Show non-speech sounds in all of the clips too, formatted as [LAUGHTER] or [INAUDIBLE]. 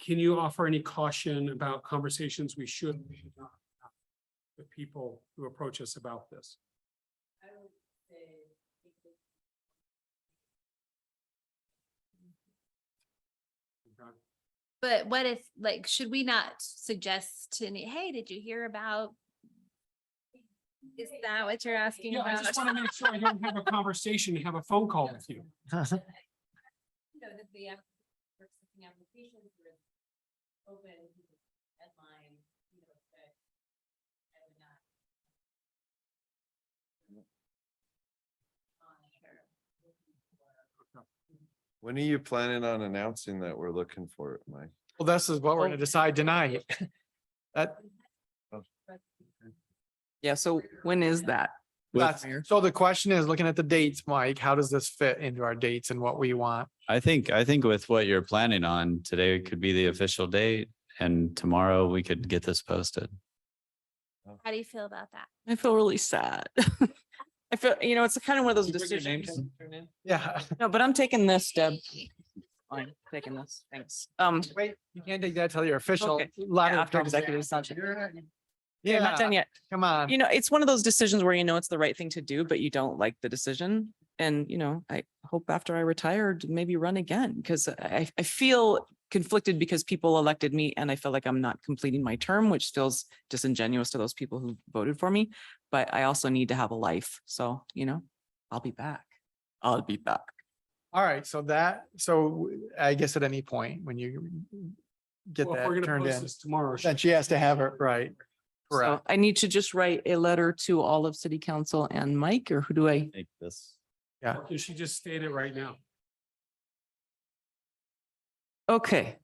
Can you offer any caution about conversations we should and we should not have with people who approach us about this? I would say. But what if, like, should we not suggest to, any- hey, did you hear about? Is that what you're asking Yeah, I about? just want to make sure I don't have a conversation, have a phone call with [LAUGHS] you. No, that the, app- for accepting applications were open deadline, you know, but I would not. On her. When are you planning on announcing that we're looking for it, Mike? Well, this is Oh. what we're gonna decide tonight. That, Yeah, so when is that? that's, so the question is, looking at the dates, Mike, how does this fit into our dates and what we want? I think, I think with what you're planning on, today could be the official date and tomorrow we could get this posted. How do you feel about that? I feel really sad. [LAUGHS] I feel, you know, it's kind of one of those decisions. Yeah. [LAUGHS] No, but I'm taking this, Deb. I'm taking this, thanks. Um, Wait, you can't take that till your official. Okay. letter after comes executive in. session. yeah, not Yeah, done yet. come on. You know, it's one of those decisions where you know it's the right thing to do, but you don't like the decision. And, you know, I hope after I retired, maybe run again, because I, I feel conflicted because people elected me and I feel like I'm not completing my term, which feels disingenuous to those people who voted for me. But I also need to have a life. So, you know, I'll be back. I'll be back. All right, so that, so I guess at any point when you get Well, if we're that gonna turned post in, this tomorrow. then she has to have it right. So Correct. I need to just write a letter to all of city council and Mike, or who do I? Take this. Or Can she just state it right now? Okay.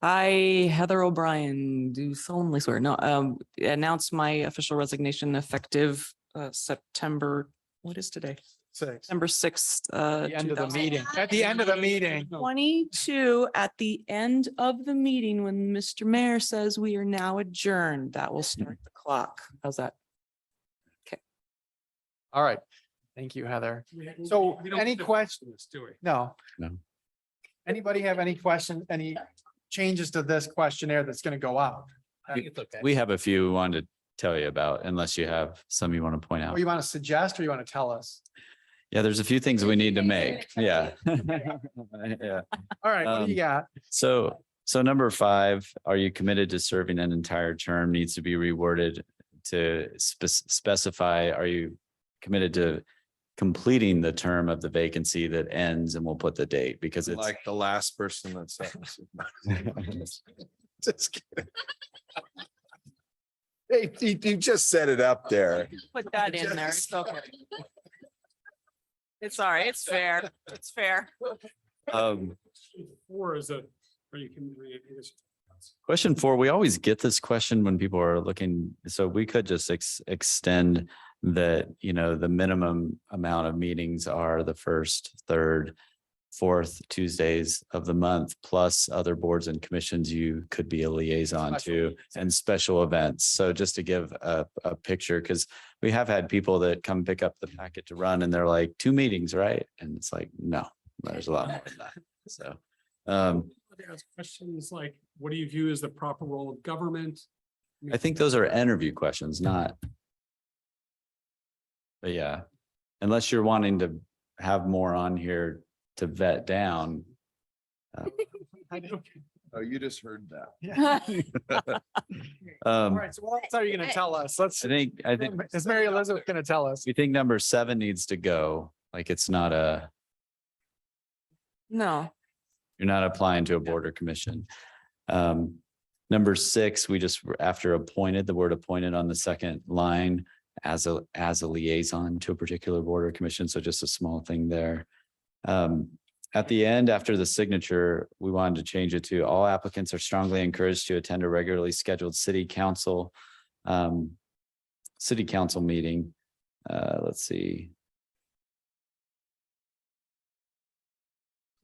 I, Heather O'Brien, do solemnly swear, no, um, announce my official resignation effective uh September, what is today? Six. September sixth, uh. The end of the meeting. At the end of the meeting. Twenty-two, at the end of the meeting, when Mr. Mayor says we are now adjourned, that will start the clock. How's that? All right. Thank you, Heather. We- So we don't any have to questions? do this, Do we? No. No. Anybody have any question, any changes to this questionnaire that's gonna go out? I think We have a few we wanted to tell you about unless you have some you want to point Or out. you wanna suggest or you wanna tell us? Yeah, there's a few things we need to [LAUGHS] make. Yeah. Yeah. [LAUGHS] All right, what do you Um, got? So, so number five, are you committed to serving an entire term needs to be reworded to spec- specify, are you committed to completing the term of the vacancy that ends and we'll put the date because it's Like the last person that said. this. [LAUGHS] Just kidding. Hey, you, you just set it up there. Put that in there. It's okay. It's all right. It's fair. It's fair. um, Four is a, or you can. I guess- Question four, we always get this question when people are looking, so we could just ex- extend that, you know, the minimum amount of meetings are the first, third, fourth Tuesdays of the month, plus other boards and commissions you could be a liaison Special to and special events. So just to give a, a picture, because we have had people that come pick up the packet to run and they're like, two meetings, right? And it's like, no, there's a lot more than that. So, um, They ask Questions like, what do you view as the proper role of government? I think those are interview questions, not. But yeah, unless you're wanting to have more on here to vet down. uh, Oh, you just heard that. [LAUGHS] [LAUGHS] All Um, right, so what else are you gonna tell us? Let's, I think, I think, [LAUGHS] is Mary Elizabeth gonna tell us? we think number seven needs to go, like it's not a, No. you're not applying to a board or commission. Um, number six, we just, after appointed, the word appointed on the second line as a, as a liaison to a particular board or commission, so just a small thing there. Um, at the end, after the signature, we wanted to change it to all applicants are strongly encouraged to attend a regularly scheduled city council, um, city council meeting. Uh, let's see.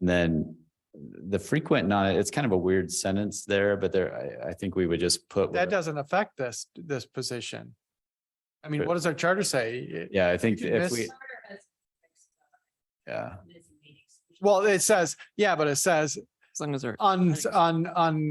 And Then the frequent, not, it's kind of a weird sentence there, but there, I, I think we would just put. That whatever- doesn't affect this, this position. I mean, But- what does our charter say? It- Yeah, I think could if miss- we, Charter has fixed, yeah. uh, minutes and meetings. Well, it says, yeah, but it says As long as they're. on, on, on